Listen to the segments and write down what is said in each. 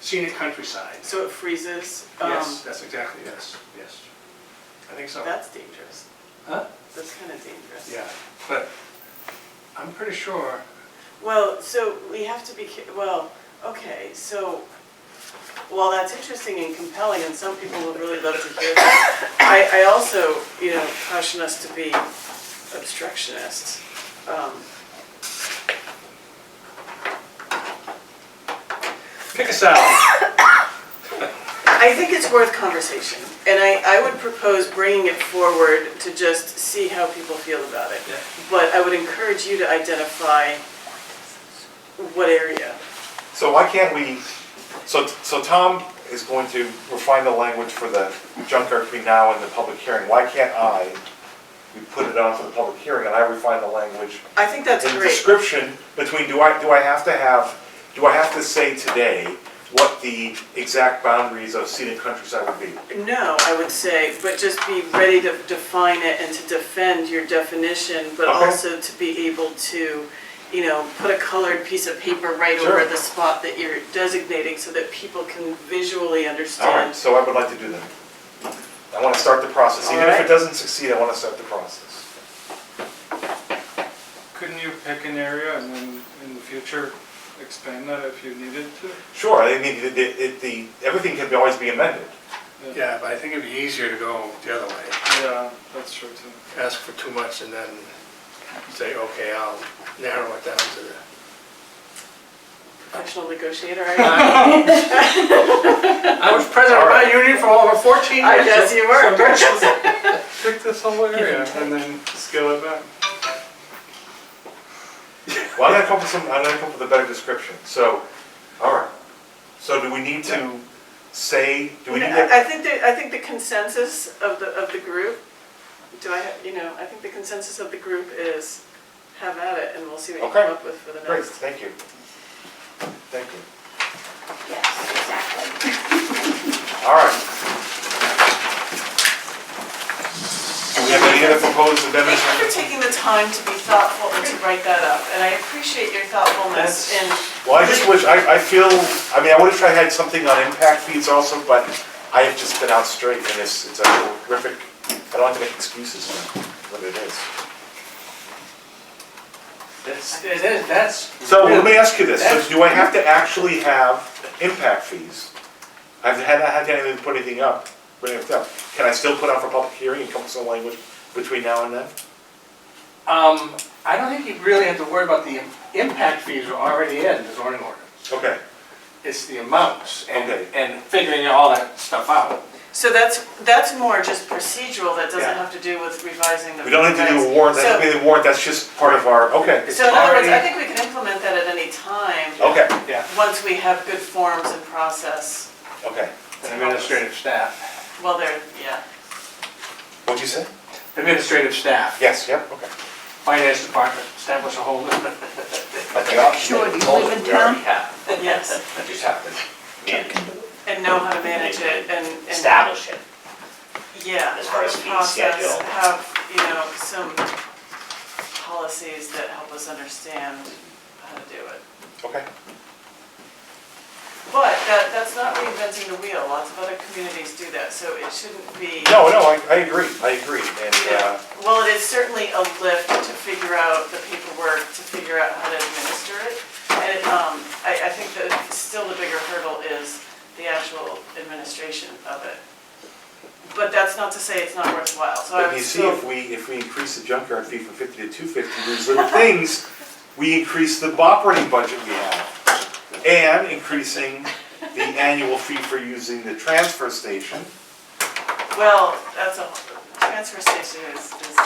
scenic countryside. So it freezes. um, Yes, that's exactly, yes, yes. I think so. That's dangerous. Huh? That's kind of dangerous. Yeah, but I'm pretty sure, Well, so we have to be, ca- well, okay, so, while that's interesting and compelling, and some people would really love to hear that, I, I also, you know, caution us to be obstructionists. Um, pick a side. I think it's worth conversation, and I, I would propose bringing it forward to just see how people feel about it. Yeah. But I would encourage you to identify what area. So why can't we, so, so Tom is going to refine the language for the junkyard between now and the public hearing. Why can't I, we put it on for the public hearing and I refine the language I think that's in great. description between, do I, do I have to have, do I have to say today what the exact boundaries of scenic countryside would be? No, I would say, but just be ready to define it and to defend your definition, but Okay. also to be able to, you know, put a colored piece of paper right Sure. over the spot that you're designating so that people can visually All right, understand. so I would like to do that. I want to start the process, even if Alright. it doesn't succeed, I want to start the process. Couldn't you pick an area and then in the future expand that if you needed to? Sure, I mean, the, the, the, everything can be- always be amended. Yeah, but I think it'd be easier to go the other way. Yeah, that's true too. Ask for too much and then say, okay, I'll narrow it down to the Professional negotiator, I, I was president of my union for over 14 years. I guess you were. Pick this whole area and then scale it back. Well, I'm gonna come up with some, I'm gonna come up with a better description, so, all right. So do we need to say, do we need to? I think that, I think the consensus of the, of the group, do I, have- you know, I think the consensus of the group is have at it and we'll see what you Okay. come up with for the next. Great, thank you. Thank you. Yes, exactly. All right. Do we have any other proposed amendments? Thank you for taking the time to be thoughtful and to write that up, and I appreciate your thoughtfulness in, Well, I just wish, I, I feel, I mean, I wish I had something on impact fees also, but I have just been out straight and it's, it's a horrific, I don't have to make excuses for what it is. That's, it is, that's. So let me ask you this, so do I have to actually have impact fees? I've had, I haven't even put anything up, put anything up. Can I still put out for public hearing and come up with some language between now and then? Um, I don't think you really have to worry about the im- impact fees are already in the zoning ordinance. Okay, It's the amounts and, Okay. and figuring all that stuff out. so that's, that's more just procedural, that doesn't Yeah. have to do with revising the. we don't need to do a revised- warrant, that So- doesn't be the warrant, that's just part of our, okay, It's So in other words, I already- think we can implement that at any time, okay, Yeah, once we have good forms and process, okay. and administrative staff. well, there, yeah. What'd you say? Administrative staff. Yes, yep, okay. Finance department, establish a whole list. Sure, do you live in town? Yes, That just happened. and know how to manage it and. and- Establish it. Yeah, As far have as a fee process, schedule. have, you know, some policies that help us understand how to do it. Okay, But that, that's not reinventing the wheel, lots of other communities do that, so it shouldn't be. no, no, I, I agree, I agree, and, uh, Well, it is certainly a lift to figure out the paperwork, to figure out how to administer it. And, um, I, I think that still the bigger hurdle is the actual administration of it. But that's not to say it's not worthwhile, Uh, so I But would you see, still. if we, if we increase the junkyard fee from fifty to two fifty, these little things, we increase the operating budget we have. And increasing the annual fee for using the transfer station. Well, that's a, transfer station is, is,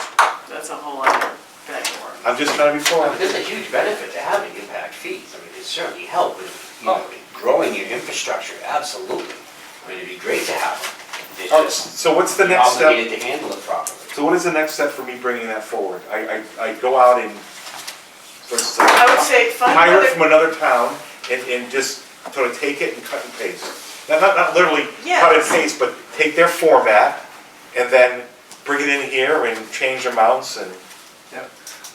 that's a whole other bag of worms. I'm just trying to be Well, forward. There's a huge benefit to having impact fees. I mean, it certainly help with, you know, Oh. growing your infrastructure, absolutely. I mean, it'd be great to have them. It's just Oh, So what's the you're next step? obligated to handle it properly. So what is the next step for me bringing that forward? I, I, I go out and, uh, for instance, I would say find hire it other, from another town and, and just sort of take it and cut and paste. Not, not, not literally cut and Yes. paste, but take their format and then bring it in here and change amounts and,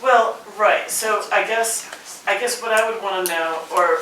well, right, so I guess, I guess what I would wanna know, or